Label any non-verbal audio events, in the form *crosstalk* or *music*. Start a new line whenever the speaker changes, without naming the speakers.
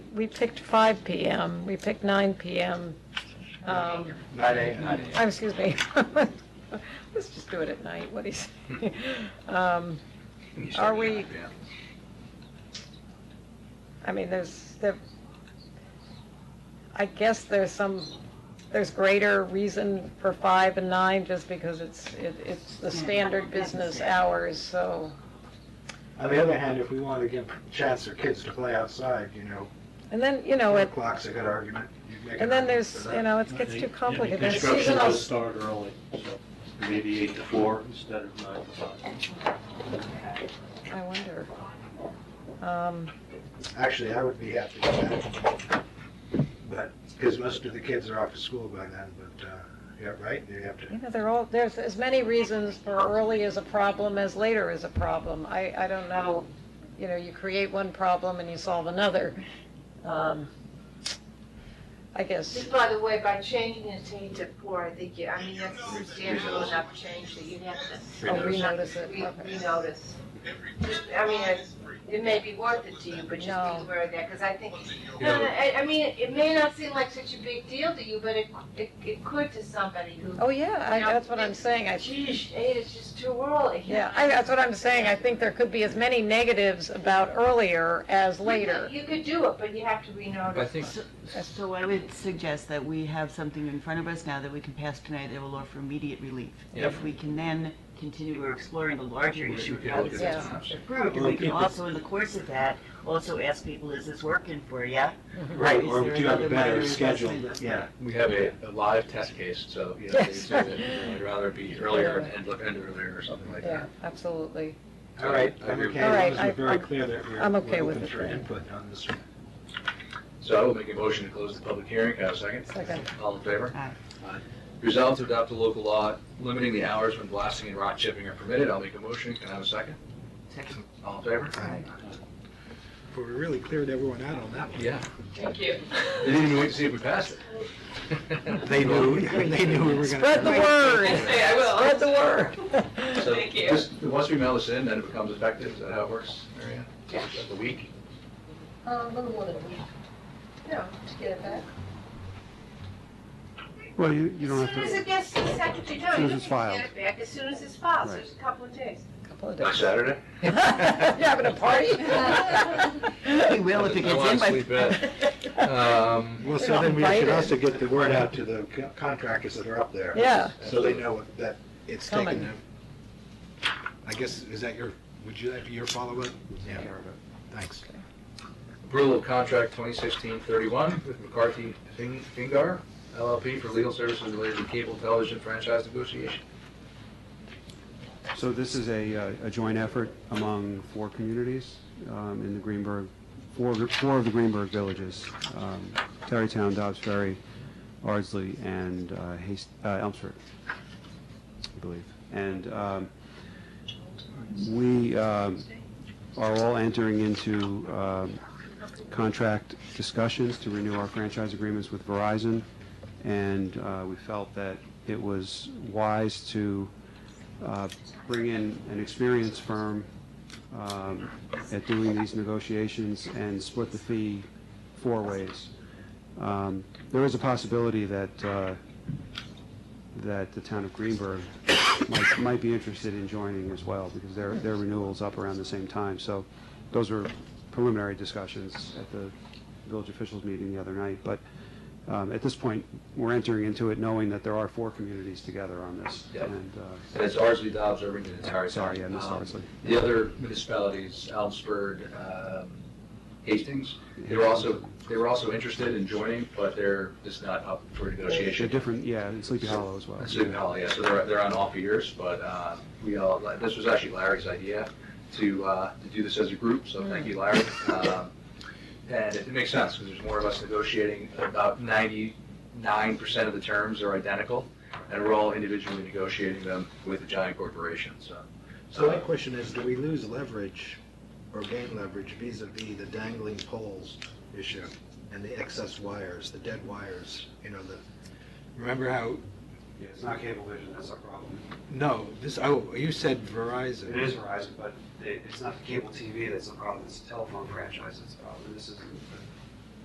we picked 5 PM, we picked 9 PM. Um,
Nine A, nine
I'm,
A.
excuse me. *laughs* Let's just do it at night, what do you say? Um, Are we- I mean, there's, there, I guess there's some, there's greater reason for five and nine just because it's, it, it's the standard business hours, so.
On the other hand, if we want to give a chance for kids to play outside, you know,
And then, you know,
four
it,
o'clock's a good argument. You make an
and then
argument
there's,
for that.
you know, it gets
They-
too
yeah,
complicated. There's
Construction
seasonal-
will start early, so maybe eight to four instead of nine to five.
I wonder. Um,
Actually, I would be happy with that. But, because most of the kids are off to school by then, but, uh, yeah, right, you have
You
to,
know, there are all, there's as many reasons for early is a problem as later is a problem. I, I don't know, you know, you create one problem and you solve another. Um, I guess,
Just by the way, by changing it to eight to four, I think, you- I mean, that's a substantial enough change that you'd have to. Oh,
I'll renotice it.
Re-
Okay.
Renotice. Just, I mean, it's- it may be worth it to you, but just
No.
be aware of that, because I think, no, no, I, I mean, it may not seem like such a big deal to you, but it, it, it could to somebody who,
oh, yeah, I, that's what I'm saying. I,
geez, eight is just too early.
yeah, I, that's what I'm saying. I think there could be as many negatives about earlier as later.
You could do it, but you have to renotice.
I think,
So I would suggest that we have something in front of us now that we can pass tonight that will offer immediate relief. If we can then continue exploring the larger issue of how this is approved, and we can also, in the course of that, also ask people, is this working for you?
right,
Is
or
there
do have a
another
better
minor
schedule,
adjustment?
yeah.
we have a, a live test case, so, you know, they
Yes.
say that you know, I'd rather it be earlier and end up end earlier or something like
Yeah,
that.
absolutely.
All right,
I
I'm
agree.
okay,
All right,
as long
I-
as we're very
I'm-
clear that we're
I'm
we're
okay with
open
it
for
then.
input on this one.
So I will make a motion to close the public hearing, Can I have a second?
Second.
All in favor?
Aye.
Aye. Resolved to adopt a local law limiting the hours when blasting and rock chipping are permitted, I'll make a motion, can I have a second?
Second.
All in favor?
Aye. But we really cleared everyone out on that one.
Yeah,
Thank you.
they didn't even wait to see if we passed it.
*laughs* They knew, they knew we were gonna.
Spread the word.
I will.
Spread the
*laughs*
word.
So
Thank you.
just, once we mail this in, then it becomes effective, is that how it works, Marianne?
Yeah.
The week?
A little more than a week. No, to get it back.
Well, you, you don't
As
have
soon as
to,
it gets to the secretary, no,
soon
you don't
as it's
have to get
filed.
it back as soon as it's filed, so
Right.
it's a couple of days.
Couple of
On
days. *laughs*
Saturday?
You're having a party?
We will if it
I
gets
wanna
in by.
sleep in.
*laughs*
Um,
Well,
They're
so
not
then we should
invited.
also get the word out to the co- contractors that are up there.
Yeah.
So they know that it's
Coming.
taken them. I guess, is that your, would you, that be your follow-up? Yeah. Thanks.
Approval of contract 2016-31 with McCarthy Fing- Fingar LLP for legal services related to cable television franchise negotiation.
so this is a, uh, a joint effort among four communities um, in the Greenberg, four, four of the Greenberg villages, um, Terrytown, Dobbs Ferry, Ardsley, and uh, Hast, uh, Elmsford, I believe. And um, we um, are all entering into um, contract discussions to renew our franchise agreements with Verizon, and uh, we felt that it was wise to uh, bring in an experienced firm um, at doing these negotiations and split the fee four ways. Um, There is a possibility that, uh, that the town of Greenberg might, might be interested in joining as well, because their, their renewal's up around the same time. So those were preliminary discussions at the village officials meeting the other night. But um, at this point, we're entering into it knowing that there are four communities together on this.
Yep.
And uh,
And it's Ardsley, Dobbs, Irvington, and Tarrytown.
Sorry, I missed
Um,
Ardsley.
The other municipalities, Elmsford, um, Hastings, they were also, they were also interested in joining, but they're just not up for
They're
negotiation.
different, yeah, and Sleepy Hollow as well.
That's Sleepy Hollow, yeah, so they're, they're on off years, but uh, we all, like, this was actually Larry's idea to, uh, to do this as a group, so thank you, Larry. Um, And it makes sense, because there's more of us negotiating, about ninety-nine percent of the terms are identical, and we're all individually negotiating them with a giant corporation, so.
So my question is, do we lose leverage or gain leverage vis-à-vis the dangling poles issue and the excess wires, the dead wires, you know, the, remember how,
Yeah, it's not Cablevision, that's our problem.
no, this, oh, you said Verizon.
It is Verizon, but it- it's not the cable TV that's the problem, it's the telephone franchise that's the problem. This is